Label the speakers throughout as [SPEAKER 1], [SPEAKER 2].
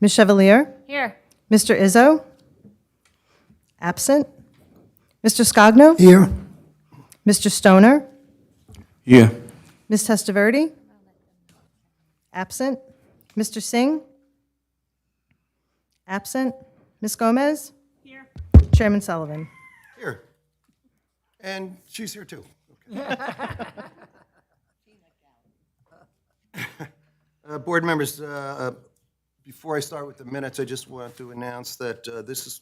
[SPEAKER 1] Ms. Chevalier?
[SPEAKER 2] Here.
[SPEAKER 1] Mr. Izzo? Absent. Mr. Scogno?
[SPEAKER 3] Here.
[SPEAKER 1] Mr. Stoner?
[SPEAKER 3] Here.
[SPEAKER 1] Ms. Testaverde? Absent. Mr. Singh? Absent. Ms. Gomez? Here. Chairman Sullivan?
[SPEAKER 4] Here. And she's here too. Uh, Board members, uh, before I start with the minutes, I just want to announce that uh, this is-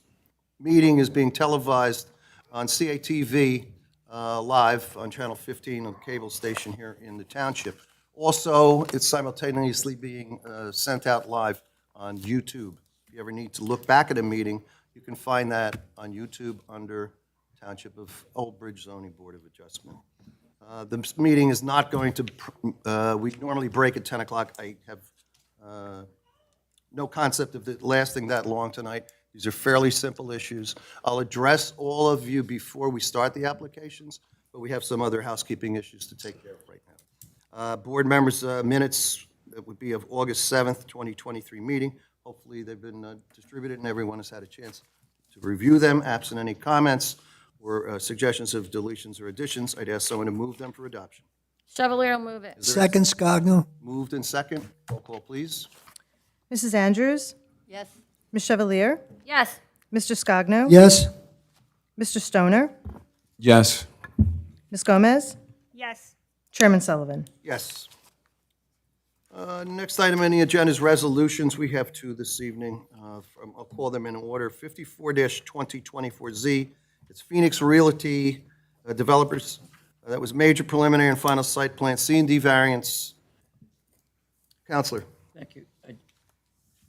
[SPEAKER 4] meeting is being televised on CATV uh, Live on Channel 15 on the cable station here in the township. Also, it's simultaneously being uh, sent out live on YouTube. If you ever need to look back at a meeting, you can find that on YouTube under Township of Old Bridge Zoning Board of Adjustment. Uh, This meeting is not going to, pr- uh, we normally break at 10 o'clock. I have uh, no concept of it lasting that long tonight. These are fairly simple issues. I'll address all of you before we start the applications, but we have some other housekeeping issues to take care of right now. Uh, Board members, uh, minutes, that would be of August 7th, 2023 meeting. Hopefully, they've been uh, distributed and everyone has had a chance to review them. Absent any comments or uh, suggestions of deletions or additions, I'd ask someone to move them for adoption.
[SPEAKER 2] Chevalier will move it.
[SPEAKER 3] Second Scogno.
[SPEAKER 4] Moved and second. Roll call, please.
[SPEAKER 1] Mrs. Andrews?
[SPEAKER 2] Yes.
[SPEAKER 1] Ms. Chevalier?
[SPEAKER 2] Yes.
[SPEAKER 1] Mr. Scogno?
[SPEAKER 3] Yes.
[SPEAKER 1] Mr. Stoner?
[SPEAKER 5] Yes.
[SPEAKER 1] Ms. Gomez?
[SPEAKER 2] Yes.
[SPEAKER 1] Chairman Sullivan?
[SPEAKER 4] Yes. Uh, Next item on the agenda is resolutions. We have two this evening. uh, from- I'll call them in order. 54-2024Z, it's Phoenix Realty uh, Developers. Uh, That was major preliminary and final site plan, C and D variance. Counselor,
[SPEAKER 6] Thank you. Uh,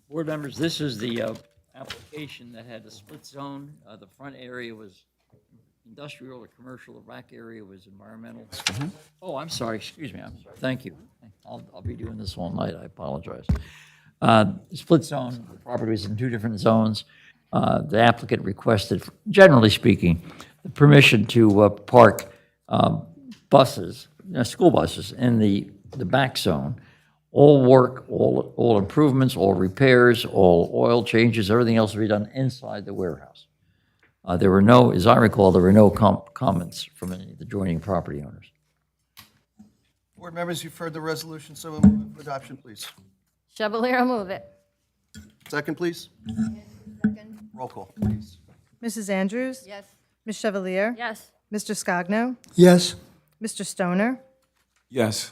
[SPEAKER 6] Board members, this is the uh, application that had a split zone. Uh, The front area was industrial or commercial, the back area was environmental. Oh, I'm sorry, excuse me, I'm sorry, thank you. I'll, I'll be doing this all night, I apologize. Uh, Split zone, the property was in two different zones. Uh, The applicant requested, generally speaking, the permission to uh, park um, buses, uh, school buses, in the, the back zone. All work, all, all improvements, all repairs, all oil changes, everything else will be done inside the warehouse. Uh, There were no, as I recall, there were no com- comments from any of the adjoining property owners.
[SPEAKER 4] board members, you've heard the resolution, so move for adoption, please.
[SPEAKER 2] Chevalier will move it.
[SPEAKER 4] Second, please. Roll call, please.
[SPEAKER 1] Mrs. Andrews?
[SPEAKER 2] Yes.
[SPEAKER 1] Ms. Chevalier?
[SPEAKER 2] Yes.
[SPEAKER 1] Mr. Scogno?
[SPEAKER 3] Yes.
[SPEAKER 1] Mr. Stoner?
[SPEAKER 5] Yes.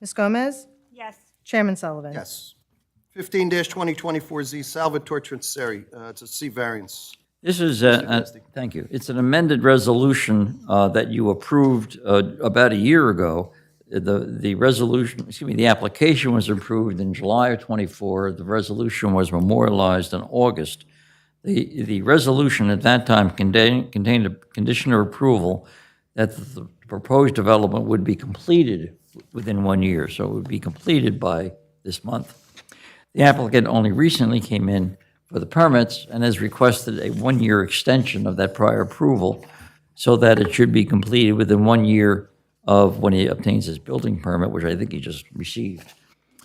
[SPEAKER 1] Ms. Gomez?
[SPEAKER 2] Yes.
[SPEAKER 1] Chairman Sullivan?
[SPEAKER 4] Yes. 15-2024Z, Salvatore Trinseri, Uh, it's a C variance.
[SPEAKER 6] This is, a- a- thank you, it's an amended resolution uh, that you approved uh, about a year ago. The, the resolution, excuse me, the application was approved in July of '24, the resolution was memorialized in August. The, the resolution at that time contained, contained a condition of approval that the proposed development would be completed within one year, so it would be completed by this month. The applicant only recently came in for the permits and has requested a one-year extension of that prior approval so that it should be completed within one year of when he obtains his building permit, which I think he just received.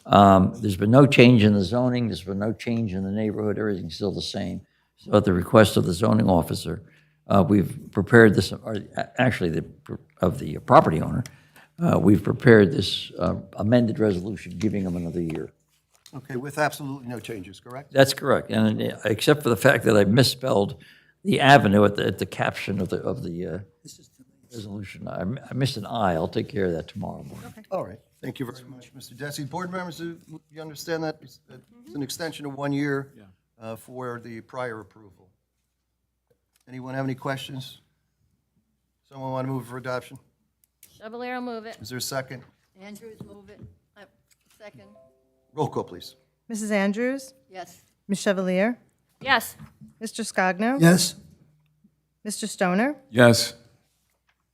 [SPEAKER 6] Um, There's been no change in the zoning, there's been no change in the neighborhood, everything's still the same. So at the request of the zoning officer, uh, we've prepared this, or a- actually, the of the property owner, uh, we've prepared this uh, amended resolution giving him another year.
[SPEAKER 4] Okay, with absolutely no changes, correct?
[SPEAKER 6] That's correct, and uh, except for the fact that I misspelled the avenue at the, at the caption of the, of the uh, resolution. I m- I missed an I, I'll take care of that tomorrow morning.
[SPEAKER 4] All right, thank you very much, Mr. Desi. Board members, do you understand that it's it's an extension of one year uh, for the prior approval? Anyone have any questions? Someone want to move for adoption?
[SPEAKER 2] Chevalier will move it.
[SPEAKER 4] Is there a second?
[SPEAKER 7] Andrews, move it. Uh, Second,
[SPEAKER 4] Roll call, please.
[SPEAKER 1] Mrs. Andrews?
[SPEAKER 7] yes.
[SPEAKER 1] Ms. Chevalier?
[SPEAKER 2] Yes.
[SPEAKER 1] Mr. Scogno?
[SPEAKER 3] Yes.
[SPEAKER 1] Mr. Stoner?
[SPEAKER 5] Yes.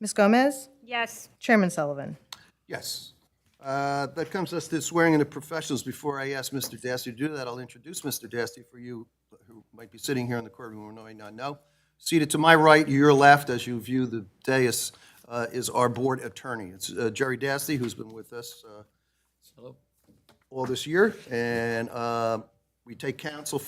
[SPEAKER 1] Ms. Gomez?
[SPEAKER 2] Yes.
[SPEAKER 1] Chairman Sullivan?
[SPEAKER 4] Yes. Uh, That comes us to swearing in the professionals. Before I ask Mr. Dasty to do that, I'll introduce Mr. Dasty for you who might be sitting here in the courtroom who may not know. Seated to my right, your left, as you view the dais, uh, is our board attorney. It's uh, Jerry Dasty, who's been with us uh, all this year, and uh, we take council